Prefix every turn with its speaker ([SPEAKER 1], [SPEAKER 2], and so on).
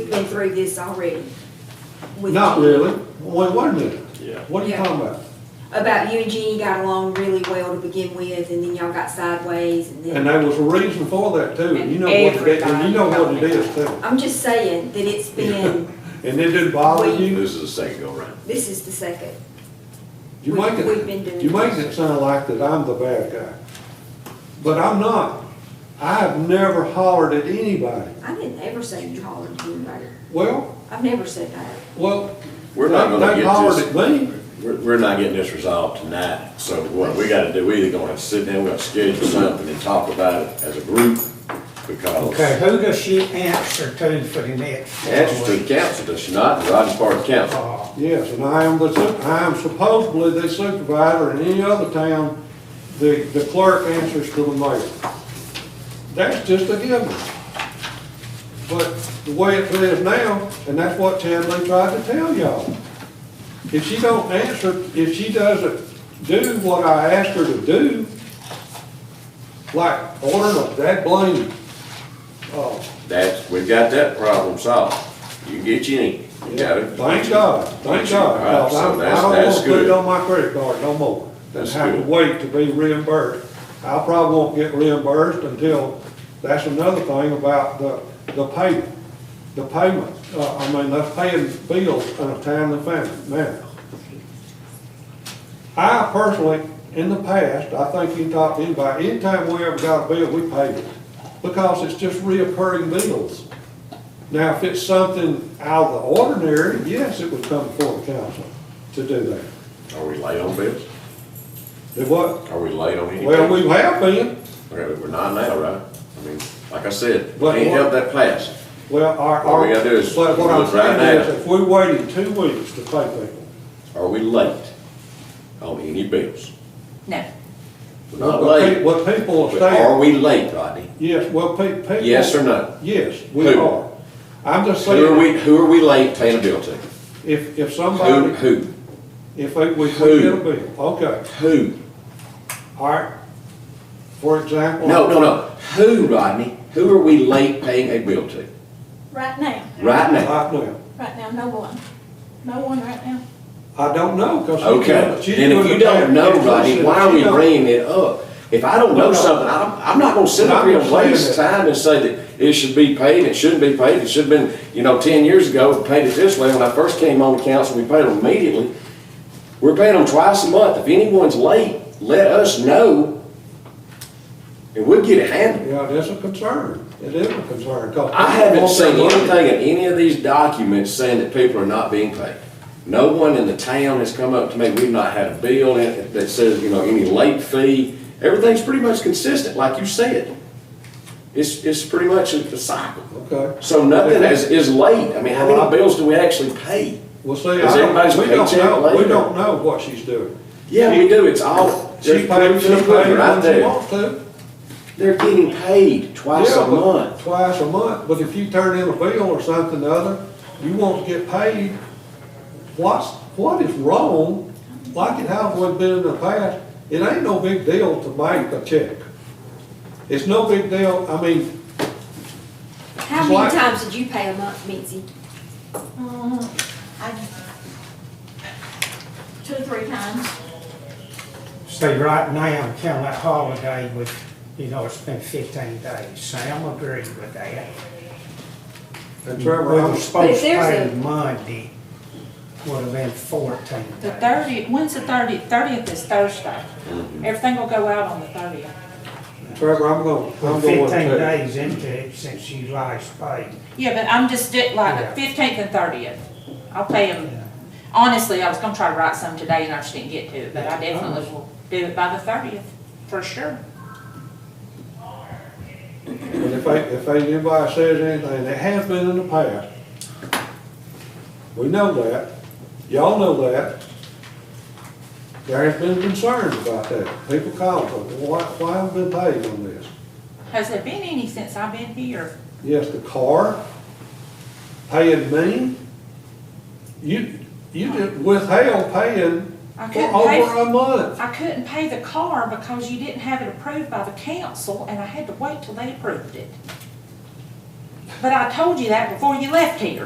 [SPEAKER 1] been through this already. with
[SPEAKER 2] Not
[SPEAKER 1] Jeannie.
[SPEAKER 2] really. Wait, wait a minute.
[SPEAKER 3] Yeah.
[SPEAKER 2] What are you
[SPEAKER 1] Yeah.
[SPEAKER 2] talking about?
[SPEAKER 1] About you and Jeannie got along really well to begin with, and then y'all got sideways, and
[SPEAKER 2] And
[SPEAKER 1] then.
[SPEAKER 2] there was a reason for that too, and you know what it, and you know what it is too.
[SPEAKER 1] I'm just saying that it's been,
[SPEAKER 2] And it didn't bother you?
[SPEAKER 3] This is the second go round.
[SPEAKER 1] this is the second.
[SPEAKER 2] You
[SPEAKER 1] We've-
[SPEAKER 2] make
[SPEAKER 1] we've been doing
[SPEAKER 2] it, you make
[SPEAKER 1] this.
[SPEAKER 2] it sound like that I'm the bad guy. But I'm not. I have never hollered at anybody.
[SPEAKER 1] I didn't ever say you hollered at anybody.
[SPEAKER 2] Well,
[SPEAKER 1] I've never said that.
[SPEAKER 2] well,
[SPEAKER 3] We're not gonna
[SPEAKER 2] they hollered
[SPEAKER 3] get
[SPEAKER 2] at me.
[SPEAKER 3] this, we're, we're not getting this resolved tonight, so what we gotta do, we either gonna have to sit down, we gotta schedule something and talk about it as a group,
[SPEAKER 4] Okay,
[SPEAKER 3] because
[SPEAKER 4] who does she answer to for the next
[SPEAKER 3] answers
[SPEAKER 4] four
[SPEAKER 3] to the
[SPEAKER 4] weeks?
[SPEAKER 3] council, does she not, Rogers Park Council?
[SPEAKER 4] Uh,
[SPEAKER 2] Yes, and I am the, su- I am supposedly the supervisor in any other town, the, the clerk answers to the mayor. That's just a given. But the way it is now, and that's what Chadley tried to tell y'all. If she don't answer, if she doesn't do what I asked her to do, like ordering a that blame, uh,
[SPEAKER 3] That's, we've got that problem solved, you can get you in, you got it.
[SPEAKER 2] Thank God, thank God,
[SPEAKER 3] All right,
[SPEAKER 2] because
[SPEAKER 3] so
[SPEAKER 2] I'm-
[SPEAKER 3] that's,
[SPEAKER 2] I don't
[SPEAKER 3] that's
[SPEAKER 2] want to put it
[SPEAKER 3] good.
[SPEAKER 2] on my credit card no more. And
[SPEAKER 3] That's
[SPEAKER 2] have to
[SPEAKER 3] good.
[SPEAKER 2] wait to be reimbursed. I probably won't get reimbursed until, that's another thing about the, the payment. The payment, uh, I mean, that's paying bills in a timely fashion now. I personally, in the past, I think you can talk to anybody, anytime we ever got a bill, we paid it. Because it's just reoccurring bills. Now, if it's something out of the ordinary, yes, it would come before the council to do that.
[SPEAKER 3] Are we late on bills?
[SPEAKER 2] It what,
[SPEAKER 3] Are we late on anything?
[SPEAKER 2] well, we have been,
[SPEAKER 3] Okay, but we're not now, right? I mean, like I said,
[SPEAKER 2] But
[SPEAKER 3] can't
[SPEAKER 2] what-
[SPEAKER 3] help that pass.
[SPEAKER 2] well, our,
[SPEAKER 3] What
[SPEAKER 2] our.
[SPEAKER 3] we gotta do is
[SPEAKER 2] But what I'm
[SPEAKER 3] look right
[SPEAKER 2] saying is,
[SPEAKER 3] now.
[SPEAKER 2] if we waited two weeks to pay people,
[SPEAKER 3] Are we late on any bills?
[SPEAKER 5] No.
[SPEAKER 3] We're not
[SPEAKER 2] what pe-
[SPEAKER 3] late.
[SPEAKER 2] what people are
[SPEAKER 3] But Are
[SPEAKER 2] saying,
[SPEAKER 3] we late, Rodney?
[SPEAKER 2] yes, well, pe- people.
[SPEAKER 3] Yes or no?
[SPEAKER 2] Yes, we
[SPEAKER 3] Who?
[SPEAKER 2] are. I'm just
[SPEAKER 3] Who are
[SPEAKER 2] saying,
[SPEAKER 3] we, who are we late paying a bill to?
[SPEAKER 2] if, if
[SPEAKER 3] Who,
[SPEAKER 2] somebody,
[SPEAKER 3] who,
[SPEAKER 2] if they- we, we
[SPEAKER 3] Who?
[SPEAKER 2] get a bill, okay,
[SPEAKER 3] who?
[SPEAKER 2] all right. For example.
[SPEAKER 3] No, no, no. Who, Rodney? Who are we late paying a bill to?
[SPEAKER 5] Right now,
[SPEAKER 3] Right now?
[SPEAKER 2] Right now,
[SPEAKER 5] right now, no one. No one right now.
[SPEAKER 2] I don't know, because.
[SPEAKER 3] Okay, then if you don't know, Rodney, why are we bringing it up? If I don't
[SPEAKER 2] No,
[SPEAKER 3] know
[SPEAKER 2] no.
[SPEAKER 3] something, I don't, I'm not gonna sit up here and
[SPEAKER 2] I'm saying
[SPEAKER 3] waste
[SPEAKER 2] that-
[SPEAKER 3] time and say that it should be paid, it shouldn't be paid, it should've been, you know, ten years ago, we paid it this way, when I first came on the council, we paid them immediately. We're paying them twice a month, if anyone's late, let us know, and we'll get it handled.
[SPEAKER 2] Yeah, that's a concern. It is a concern. 'cause
[SPEAKER 3] I haven't
[SPEAKER 2] people
[SPEAKER 3] seen
[SPEAKER 2] want their money.
[SPEAKER 3] anything in any of these documents saying that people are not being paid. No one in the town has come up to me, we've not had a bill in- that says, you know, any late fee. Everything's pretty much consistent, like you said. It's, it's pretty much a cycle.
[SPEAKER 2] Okay.
[SPEAKER 3] So nothing is, is late. I mean, how many bills do we actually pay?
[SPEAKER 2] Well, see, I
[SPEAKER 3] Is everybody's
[SPEAKER 2] don't, we don't
[SPEAKER 3] paycheck
[SPEAKER 2] know, we
[SPEAKER 3] later?
[SPEAKER 2] don't know what she's doing.
[SPEAKER 3] Yeah, we do, it's all,
[SPEAKER 2] She
[SPEAKER 3] there's
[SPEAKER 2] paid, she paid
[SPEAKER 3] proof of it right
[SPEAKER 2] when she
[SPEAKER 3] there.
[SPEAKER 2] wants to.
[SPEAKER 3] They're getting paid twice
[SPEAKER 2] Yeah,
[SPEAKER 3] a
[SPEAKER 2] but-
[SPEAKER 3] month.
[SPEAKER 2] Twice a month, but if you turn in a bill or something or other, you won't get paid. What's, what is wrong, like it has always been in the past, it ain't no big deal to make a check. It's no big deal, I mean,
[SPEAKER 1] How
[SPEAKER 2] Why-
[SPEAKER 1] many times did you pay a month, Mitzi?
[SPEAKER 5] Mm, I- Two or three times.
[SPEAKER 4] See, right now, counting that holiday with, you know, it's been fifteen days. Sam agreed with that.
[SPEAKER 2] and
[SPEAKER 4] We
[SPEAKER 2] Trevor, I'm
[SPEAKER 4] were supposed to
[SPEAKER 1] there's
[SPEAKER 4] pay
[SPEAKER 1] a-
[SPEAKER 4] Monday, would have been fourteen days.
[SPEAKER 6] The thirtieth, when's the thirtieth? Thirtieth is Thursday. Everything will go out on the thirtieth.
[SPEAKER 2] Trevor, I'm going,
[SPEAKER 4] We're
[SPEAKER 2] I'm going to
[SPEAKER 4] Fifteen
[SPEAKER 2] tell you.
[SPEAKER 4] days into it since you last paid.
[SPEAKER 6] Yeah, but I'm just di-
[SPEAKER 4] Yeah.
[SPEAKER 6] like fifteenth and thirtieth. I'll pay them. Honestly, I was gonna try to write some today and I just didn't get to it, but I definitely will do it by the thirtieth, for sure.
[SPEAKER 2] And if, they- if they- anybody says anything, it has been in the past. We know that, y'all know that. There has been concerns about that. People call, us, why, why haven't been paid on this?
[SPEAKER 6] Has there been any since I've been here?
[SPEAKER 2] Yes, the car, paying me. You, you did withheld paying
[SPEAKER 6] I
[SPEAKER 2] for
[SPEAKER 6] couldn't pay,
[SPEAKER 2] over a month.
[SPEAKER 6] I couldn't pay the car because you didn't have it approved by the council and I had to wait till they approved it. But I told you that before you left here.